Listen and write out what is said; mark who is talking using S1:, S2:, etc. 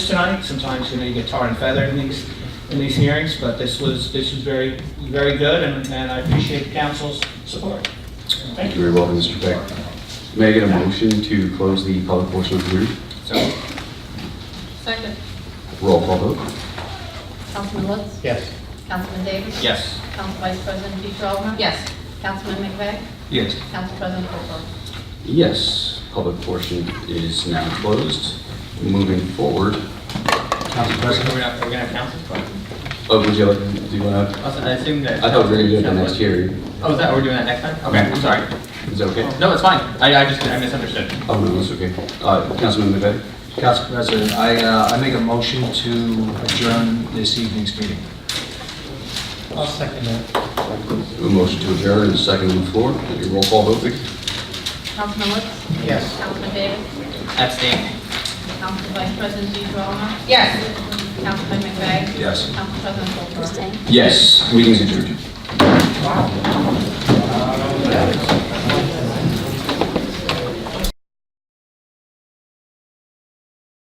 S1: tonight. Sometimes, you know, you get tarred and feathered in these, in these hearings, but this was, this was very, very good, and and I appreciate the council's support. Thank you.
S2: You're very welcome, Mr. Peck. May I get a motion to close the public portion of the hearing?
S1: So,
S3: Second.
S2: Roll call vote.
S3: Councilman Woods?
S1: Yes.
S3: Councilman Davis?
S1: Yes.
S3: Council Vice President Peter Altman? Yes. Councilman McVeigh?
S1: Yes.
S3: Council President Hope?
S2: Yes, public portion is now closed. Moving forward,
S1: Council President, we're gonna, we're gonna have council.
S2: oh, would you like, do you want to?
S4: Also, I assume that.
S2: I thought we were going to do it the next hearing.
S4: Oh, is that, we're doing that next time? Okay, I'm sorry.
S2: Is that okay?
S4: No, it's fine. I, I just, I misunderstood.
S2: Oh, no, it's okay. Uh, Councilman McVeigh?
S5: Council President, I, uh, I make a motion to adjourn this evening's meeting.
S1: I'll second that.
S2: A motion to adjourn and a second on the floor. Your roll call vote, Vic?
S3: Councilman Woods?
S1: Yes.
S3: Councilman Davis?
S4: Abstain.
S3: Council Vice President Peter Altman? Yes. Councilman McVeigh?
S5: Yes.
S3: Council President Hope?
S2: Yes, meeting's adjourned.
S1: Wow.